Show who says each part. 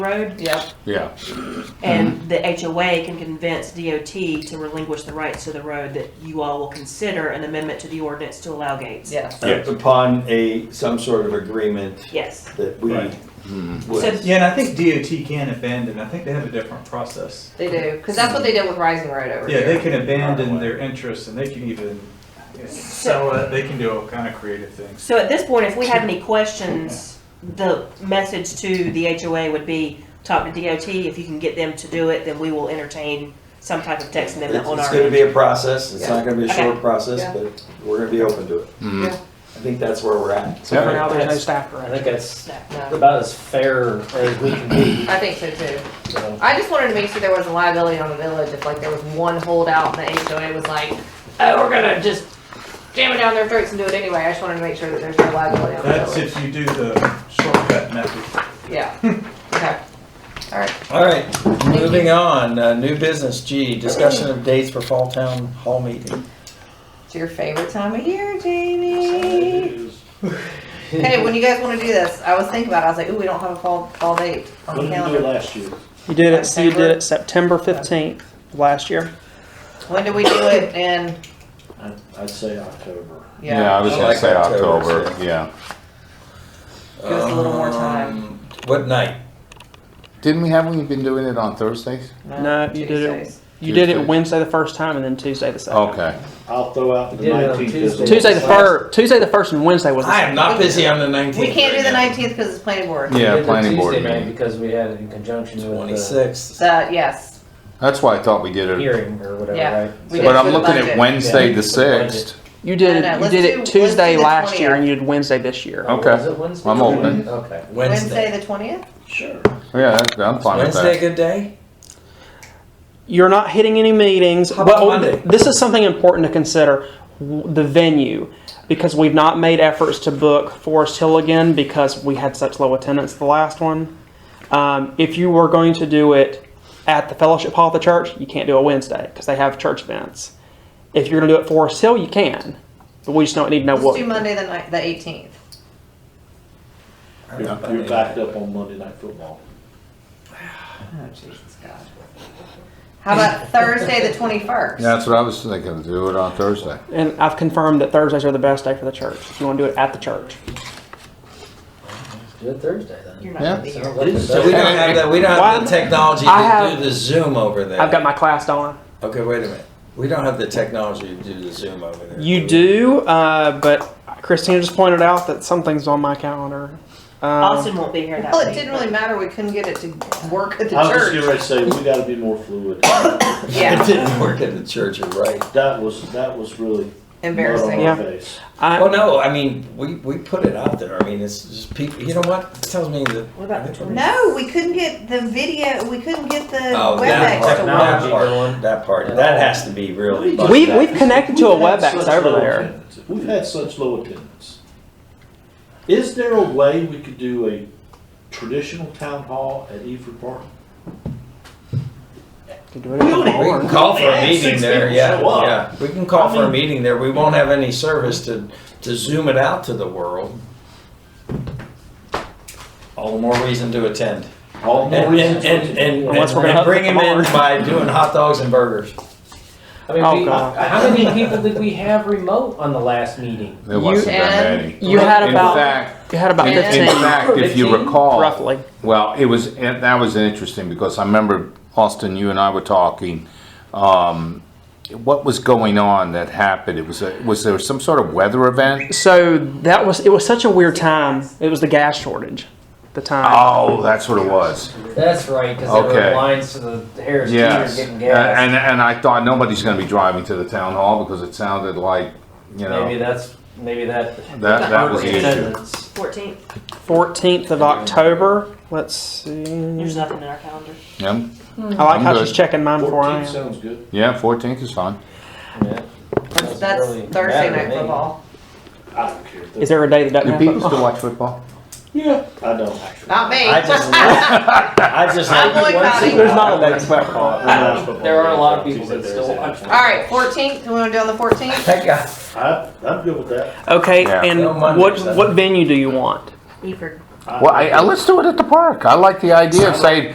Speaker 1: road.
Speaker 2: Yep.
Speaker 3: Yeah,
Speaker 4: Mm-hmm.
Speaker 1: And the HOA can convince DOT to relinquish the rights to the road that you all will consider an amendment to the ordinance to allow gates.
Speaker 2: Yes.
Speaker 3: Yes.
Speaker 4: uh, upon a, some sort of agreement
Speaker 1: Yes.
Speaker 4: that we Hmm.
Speaker 5: Right.
Speaker 4: would.
Speaker 1: So-
Speaker 5: Yeah, and I think DOT can abandon, I think they have a different process.
Speaker 2: They do, because that's what they did with Rising Road over
Speaker 5: Yeah,
Speaker 2: here.
Speaker 5: they can abandon their interest and they can even sell it, they can do all kind of creative things.
Speaker 1: So at this point, if we had any questions, the message to the HOA would be, talk to DOT. If you can get them to do it, then we will entertain some type of text amendment
Speaker 4: It's
Speaker 1: on
Speaker 4: it's
Speaker 1: our
Speaker 4: gonna
Speaker 1: end.
Speaker 4: be a process, it's not gonna be a
Speaker 1: Okay.
Speaker 4: short process,
Speaker 2: Yeah.
Speaker 4: but we're gonna be open to it.
Speaker 2: Yeah.
Speaker 4: I think that's where we're at.
Speaker 3: Yeah.
Speaker 6: For now, there's no
Speaker 7: That's-
Speaker 6: staff
Speaker 7: I
Speaker 6: direction.
Speaker 7: think that's
Speaker 2: No,
Speaker 7: about as fair as we can be,
Speaker 2: I think so too.
Speaker 7: so.
Speaker 2: I just wanted to make sure there wasn't liability on the village if like there was one holdout and the HOA was like, oh, we're gonna just jam it down their throats and do it anyway. I just wanted to make sure that there's no liability on the
Speaker 5: That's
Speaker 2: village.
Speaker 5: if you do the shortcut method.
Speaker 2: Yeah, okay. All right,
Speaker 4: All right, moving on, uh, new business, G, discussion of dates for Fall Town Hall meeting.
Speaker 2: it's your favorite time of year, Jamie. Hey, when you guys wanna do this, I was thinking about it, I was like, ooh, we don't have a fall, fall date on the
Speaker 7: What did we do
Speaker 2: calendar.
Speaker 7: last year?
Speaker 6: You did it, so you did it September fifteenth last year.
Speaker 2: When do we do it and,
Speaker 7: I- I'd say October.
Speaker 3: yeah, I
Speaker 2: yeah,
Speaker 3: was
Speaker 4: I
Speaker 3: gonna
Speaker 4: like
Speaker 3: say
Speaker 4: October,
Speaker 3: October,
Speaker 4: too.
Speaker 3: yeah.
Speaker 2: give us a little more time.
Speaker 4: Um, What night?
Speaker 3: Didn't we have, we been doing it on Thursdays?
Speaker 6: No, you did it-
Speaker 2: Tuesdays.
Speaker 6: You did
Speaker 3: Tuesday.
Speaker 6: it Wednesday the first time and then Tuesday the second.
Speaker 3: Okay,
Speaker 7: I'll throw out the
Speaker 4: did it on
Speaker 7: nineteenth.
Speaker 4: Tuesday.
Speaker 6: Tuesday the first, Tuesday the first and Wednesday was the
Speaker 4: I am
Speaker 6: second.
Speaker 4: not busy on the nineteenth.
Speaker 2: We can't do the nineteenth because it's planning board.
Speaker 3: yeah, planning board meeting.
Speaker 7: Because we had it in conjunction with the
Speaker 4: Twenty-sixth.
Speaker 2: So, yes,
Speaker 3: That's why I thought we did it,
Speaker 7: hearing or
Speaker 2: Yeah.
Speaker 7: whatever,
Speaker 2: We did
Speaker 7: right?
Speaker 3: but
Speaker 2: it
Speaker 3: I'm
Speaker 2: for the
Speaker 3: looking at
Speaker 2: budget.
Speaker 3: Wednesday
Speaker 7: Yeah,
Speaker 3: the
Speaker 7: for the budget.
Speaker 3: sixth.
Speaker 6: You did
Speaker 2: No, no,
Speaker 6: it, you
Speaker 2: let's
Speaker 6: did
Speaker 2: do-
Speaker 6: it
Speaker 2: let's
Speaker 6: Tuesday
Speaker 2: do the
Speaker 6: last year
Speaker 2: 20th.
Speaker 6: and you did Wednesday this year.
Speaker 3: Okay.
Speaker 7: Was it Wednesday?
Speaker 3: I'm open.
Speaker 7: Okay,
Speaker 2: Wednesday the twentieth?
Speaker 7: sure.
Speaker 3: Yeah, that- I'm fine with
Speaker 4: Wednesday, a
Speaker 3: that.
Speaker 4: good day?
Speaker 6: You're not hitting any meetings.
Speaker 4: How about
Speaker 6: but oh,
Speaker 4: Monday?
Speaker 6: This is something important to consider w- the venue because we've not made efforts to book Forest Hill again because we had such low attendance the last one. Um, if you were going to do it at the fellowship hall of the church, you can't do a Wednesday because they have church events. If you're going to do it Forest Hill, you can, but we just don't need to know
Speaker 2: Let's
Speaker 6: what.
Speaker 2: do Monday the ni- the eighteenth.
Speaker 7: You're you're backed up on Monday night football.
Speaker 2: Oh, Jesus God. How about Thursday the twenty-first?
Speaker 3: Yeah, that's what I was thinking, do it on Thursday.
Speaker 6: And I've confirmed that Thursdays are the best day for the church. If you want to do it at the church,
Speaker 7: Do it Thursday then.
Speaker 3: Yeah.
Speaker 7: Sounds like a
Speaker 4: So we
Speaker 7: budget.
Speaker 4: don't have the, we don't have the
Speaker 6: Why-
Speaker 4: technology
Speaker 6: I
Speaker 4: to
Speaker 6: have-
Speaker 4: do the Zoom over there.
Speaker 6: I've got my class on.
Speaker 4: Okay, wait a minute. We don't have the technology to do the Zoom over there.
Speaker 6: You
Speaker 4: we?
Speaker 6: do, uh, but Christina just pointed out that something's on my calendar. Um,
Speaker 1: Austin won't be here that
Speaker 2: Well,
Speaker 1: week.
Speaker 2: it didn't really matter, we couldn't get it to work at the
Speaker 7: I was just getting
Speaker 2: church.
Speaker 7: ready to say, we gotta be more fluid.
Speaker 4: It
Speaker 2: Yeah,
Speaker 4: didn't work at the church, you're right.
Speaker 7: That was, that was really
Speaker 2: embarrassing.
Speaker 7: mud on
Speaker 6: Yeah.
Speaker 7: my face.
Speaker 6: I,
Speaker 4: Well, no, I mean, we, we put it out there. I mean, it's just people, you know what? It tells me that.
Speaker 1: What about the 20th?
Speaker 2: No, we couldn't get the video, we couldn't get the
Speaker 4: Oh, that part,
Speaker 2: WebEx to
Speaker 4: that
Speaker 2: work.
Speaker 7: Technology.
Speaker 4: part, that part. That has to be really. busted
Speaker 6: We've-
Speaker 4: out.
Speaker 6: we've connected to a
Speaker 7: We've had
Speaker 6: WebEx
Speaker 7: such
Speaker 6: over
Speaker 7: low
Speaker 6: there.
Speaker 7: attendance. We've had such low attendance. Is there a way we could do a traditional town hall at Eford Park?
Speaker 6: Could do it at the
Speaker 4: We
Speaker 6: barn.
Speaker 4: can call for a
Speaker 7: Yeah,
Speaker 4: meeting
Speaker 7: six
Speaker 4: there,
Speaker 7: people
Speaker 4: yeah,
Speaker 7: show up.
Speaker 4: yeah. We can call
Speaker 7: I
Speaker 4: for a
Speaker 7: mean-
Speaker 4: meeting there. We won't have any service to, to zoom it out to the world. All the more reason to attend.
Speaker 7: All
Speaker 4: And,
Speaker 7: the more reason
Speaker 4: and,
Speaker 7: to-
Speaker 4: and, and,
Speaker 6: Unless we're gonna
Speaker 4: and bring
Speaker 6: have
Speaker 4: him
Speaker 6: to
Speaker 4: in
Speaker 6: come
Speaker 4: by doing hot dogs and burgers.
Speaker 7: I mean,
Speaker 6: Oh,
Speaker 7: we,
Speaker 6: God.
Speaker 7: how many people did we have remote on the last meeting?
Speaker 3: There wasn't that
Speaker 2: And-
Speaker 3: many.
Speaker 6: You had
Speaker 3: In
Speaker 6: about
Speaker 3: fact,
Speaker 6: you had about
Speaker 3: in-
Speaker 6: fifteen,
Speaker 3: in fact, if you
Speaker 7: 15?
Speaker 3: recall.
Speaker 6: roughly.
Speaker 3: Well, it was, and that was interesting because I remember Austin, you and I were talking. Um, what was going on that happened? It was, a, was there some sort of weather event?
Speaker 6: So that was it. Was such a weird time. It was the gas shortage, the time.
Speaker 3: Oh, that's what it was.
Speaker 7: That's right, because there
Speaker 3: Okay.
Speaker 7: were lines to the Harris Teeter
Speaker 3: Yes.
Speaker 7: getting
Speaker 3: And,
Speaker 7: gas.
Speaker 3: and I thought nobody's going to be driving to the town hall because it sounded like, you know,
Speaker 7: Maybe that's, maybe that.
Speaker 3: that, that was the issue.
Speaker 7: Attendance.
Speaker 1: 14th.
Speaker 6: Fourteenth of October. Let's see.
Speaker 1: There's nothing in our calendar.
Speaker 3: Yeah,
Speaker 6: I like
Speaker 3: I'm
Speaker 6: how
Speaker 3: good.
Speaker 6: she's checking mine before I
Speaker 7: Fourteen
Speaker 6: am.
Speaker 7: sounds good.
Speaker 3: yeah, 14th is fine.
Speaker 7: Yeah. Doesn't
Speaker 2: That's
Speaker 7: really
Speaker 2: Thursday
Speaker 7: matter to
Speaker 2: night
Speaker 7: me.
Speaker 2: football.
Speaker 7: I don't care.
Speaker 6: Is there a day that
Speaker 3: Do
Speaker 6: doesn't
Speaker 3: people
Speaker 6: have
Speaker 3: still
Speaker 6: football?
Speaker 3: watch football?
Speaker 7: Yeah. I don't actually.
Speaker 2: Not me.
Speaker 4: I just, I just.
Speaker 2: I'm
Speaker 4: like-
Speaker 2: boycotting.
Speaker 6: There's not a day.
Speaker 4: That's my fault.
Speaker 7: There are a lot of people that still watch.
Speaker 2: All right, fourteenth, we wanna do on the fourteenth?
Speaker 4: That guy.
Speaker 7: I, I'm good with that.
Speaker 6: Okay,
Speaker 3: Yeah.
Speaker 6: and
Speaker 4: No Mondays,
Speaker 6: what
Speaker 4: then.
Speaker 6: what venue do you want?
Speaker 1: Eford.
Speaker 3: Well, I, I, let's do it at the park. I like the idea of saying,